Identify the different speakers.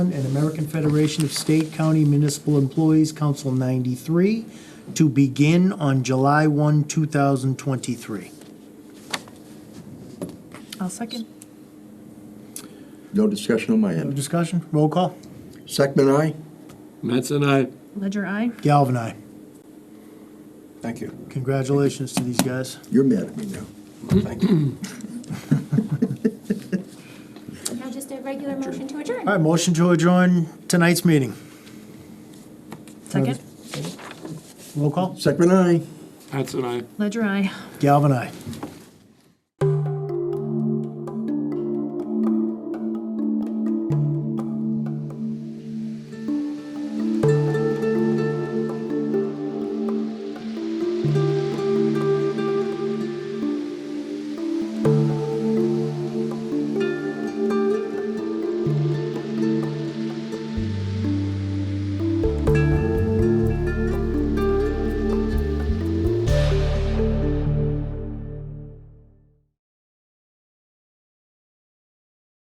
Speaker 1: and American Federation of State, County, Municipal Employees, Council 93, to begin on July 1, 2023.
Speaker 2: I'll second.
Speaker 3: No discussion on my
Speaker 1: No
Speaker 3: end.
Speaker 1: discussion? Roll call?
Speaker 3: Second, aye?
Speaker 4: Mattson, aye.
Speaker 2: Ledger, I.
Speaker 1: Galvin, aye.
Speaker 5: Thank you.
Speaker 1: Congratulations to these guys.
Speaker 3: You're mad at me now.
Speaker 5: Thank you.
Speaker 6: Now just a regular motion to adjourn.
Speaker 1: All right, motion to adjourn tonight's meeting.
Speaker 2: Second.
Speaker 1: Roll call?
Speaker 3: Second, aye?
Speaker 4: Mattson, aye.
Speaker 2: Ledger, I.
Speaker 1: Galvin, aye.